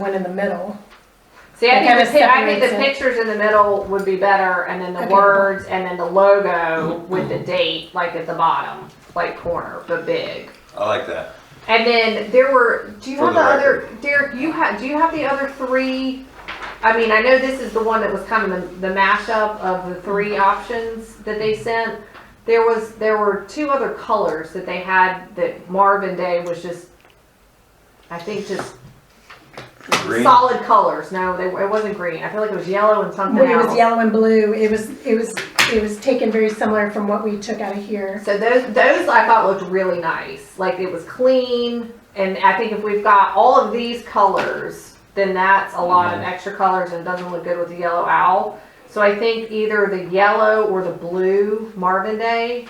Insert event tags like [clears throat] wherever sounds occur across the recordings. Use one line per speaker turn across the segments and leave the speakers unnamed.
one in the middle.
See, I
It
think, the,
kinda
pi- I think the
separates
pictures in the middle would be better, and then the
Okay.
words, and then the logo with the date, like at the bottom, like corner, but big.
I like that.
And then there were. Do you
For
have the,
the
other, Derek? You have. Do you have the other three? I mean, I know this is the one that was kind of the, the mashup of the three options that they sent. There was there were two other colors that they had that Marvin Day was just. I think just
Green.
solid colors. No, they, it wasn't green. I feel like it was yellow and something
When it
else.
was yellow and blue, it was, it was, it was taken very similar from what we took out of here.
So those those I thought looked really nice. Like it was clean, and I think if we've got all of these colors, then that's a lot
Mm-hmm.
of extra colors and doesn't look good with the yellow owl. So I think either the yellow or the blue Marvin Day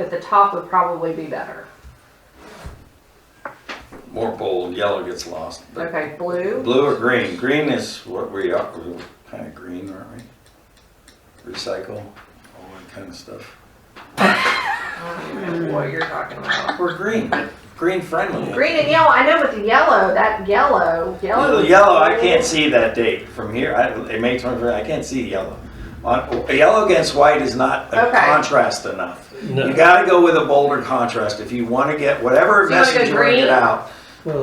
at the top would probably be better.
More bold. Yellow gets lost. but
Okay, blue.
Blue or green? Green is what we are. We're kind of green, aren't we? Recycle, all that kind of stuff.
I don't know what you're talking about.
We're green. Green friendly.
Green and yellow. I know, but the yellow, that yellow, yellow.
Little yellow. I can't see that date from here. I, it may turn. I can't see yellow. On, yellow against white is not a
Okay.
contrast enough. You
No,
got to go with a bolder contrast if you want to get whatever
So you wanna go
message you want to
green?
get out.
well,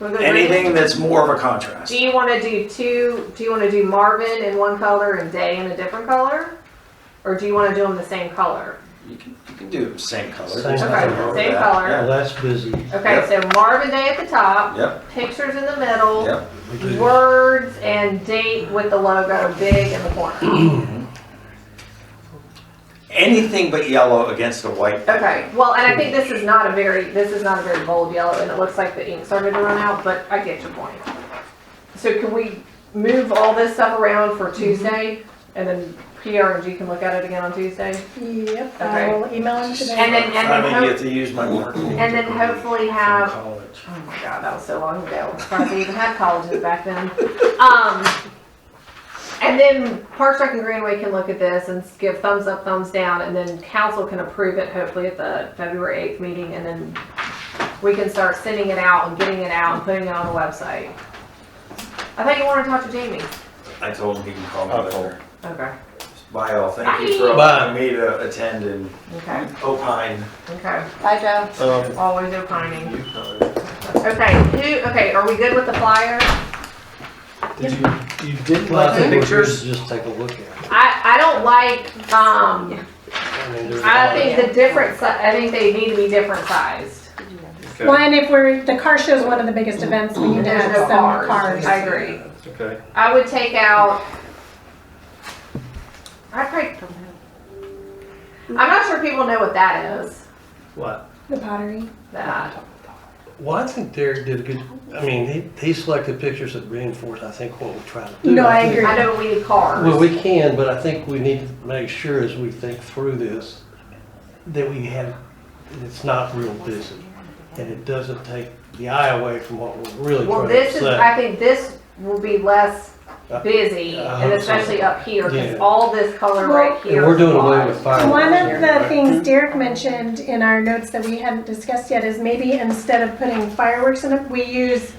We'll go green.
Anything that's more of a contrast.
Do you want to do two? Do you want to do Marvin in one color and Day in a different color, or do you want to do them the same color?
You can, you can do same color.
Same
There's
color.
nothing wrong with
Same
that.
color.
well, that's busy.
Okay, so Marvin Day at the top,
Yep,
pictures in the middle,
yep.
We do-
words and date with the logo big in the corner.
[clears throat] Anything but yellow against a white.
Okay, well, and I think this is not a very this is not a very bold yellow, and it looks like the ink started to run out. But I get your point. So can we move all this stuff around for Tuesday, and then PR and G can look at it again on Tuesday?
Yep,
Okay.
I will email them today.
And then- and then
I don't
hope-
get to use my marker.
And then hopefully have
From college.
Oh my god, that was so long ago. Probably even had colleges back then. Um, and then Parks Rec and Greenway can look at this and give thumbs up, thumbs down, and then council can approve it hopefully at the February eighth meeting, and then we can start sending it out and getting it out and putting it on the website. I thought you wanted to talk to Jamie.
I told him he can call me
Uh-oh.
later.
Okay.
Bye all, thank you for
Bye.
allowing me to attend and
Okay.
opine.
Okay. Bye, Joe.
Um,
Always opining.
You know,
Okay. Who? Okay. Are we good with the flyer?
did you, you did like
the
the
pictures?
pictures? Just take a look at it.
I I don't like um.
I mean, there's
I
all-
think the different, si- I think they need to be different sized.
Well, and if we're, the car show is one of the biggest events, we need to
There's
have
no
some
cars.
cars.
I agree.
Okay.
I would take out, I probably, I'm not sure people know what that is,
What?
The pottery.
that.
Well, I think Derek did a good, I mean, he, he selected pictures that reinforce, I think, what we're trying to do.
No, I
think-
agree.
I know we need
Well,
cars.
we can, but I think we need to make sure as we think through this, that we have, that it's not real busy. And it doesn't take the eye away from what we're really
Well,
trying to
this is,
say.
I think this will be less
Uh,
busy, and especially up here, because
Yeah.
all this color right
And
here.
we're
is
doing
wide.
away with fireworks.
One of the
right?
things Derek mentioned in our notes that we hadn't discussed yet is maybe instead of putting fireworks in it, we use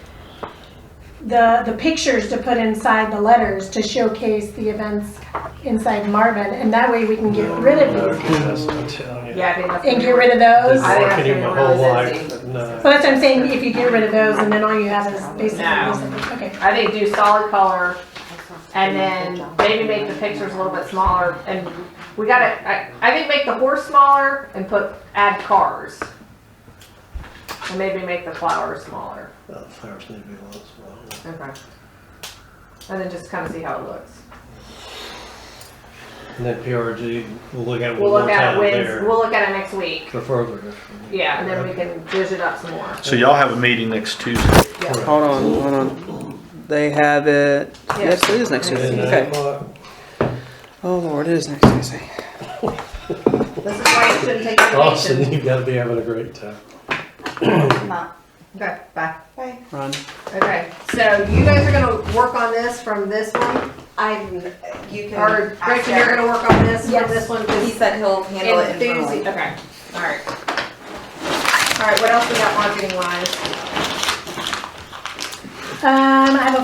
the, the pictures to put inside the letters to showcase the events inside Marvin, and that way we can get rid of these
Yes, I'm telling you.
Yeah, I think that's.
and get rid of those.
Been
I think that's
marketing my
gonna
whole
really
life,
busy.
no.
So that's what I'm saying, if you get rid of those and then all you have is basically,
No.
this. okay.
I think do solid color, and then maybe make the pictures a little bit smaller, and we gotta, I, I think make the horse smaller and put, add cars. And maybe make the flowers smaller.
Uh, Flowers need to be once in a while.
Okay. And then just kinda see how it looks.
And then PRG, we'll look at it
We'll
one more
look at it
time
Wednesday,
there
we'll look at it next week,
for further.
yeah, and then we can dish it up some more.
So y'all have a meeting next Tuesday.
Yeah.
Hold on, hold on. They have it. Yes, it is next
And,
Tuesday.
uh,
Okay.
Mark,
Oh Lord, it is next Tuesday.
This is why you shouldn't take vacation.
Austin, you've got to be having a great time.
Okay, bye. Bye.
Run.
Okay, so you guys are gonna work on this from this one?
I'm, you can.
Or
ask
Gretchen, you're
Eric.
gonna work on this,
Yes.
on this one,
He
because
said he'll handle it
enthusi,
internally.
okay, alright. Alright, what else we got marketing wise?
Um, I have a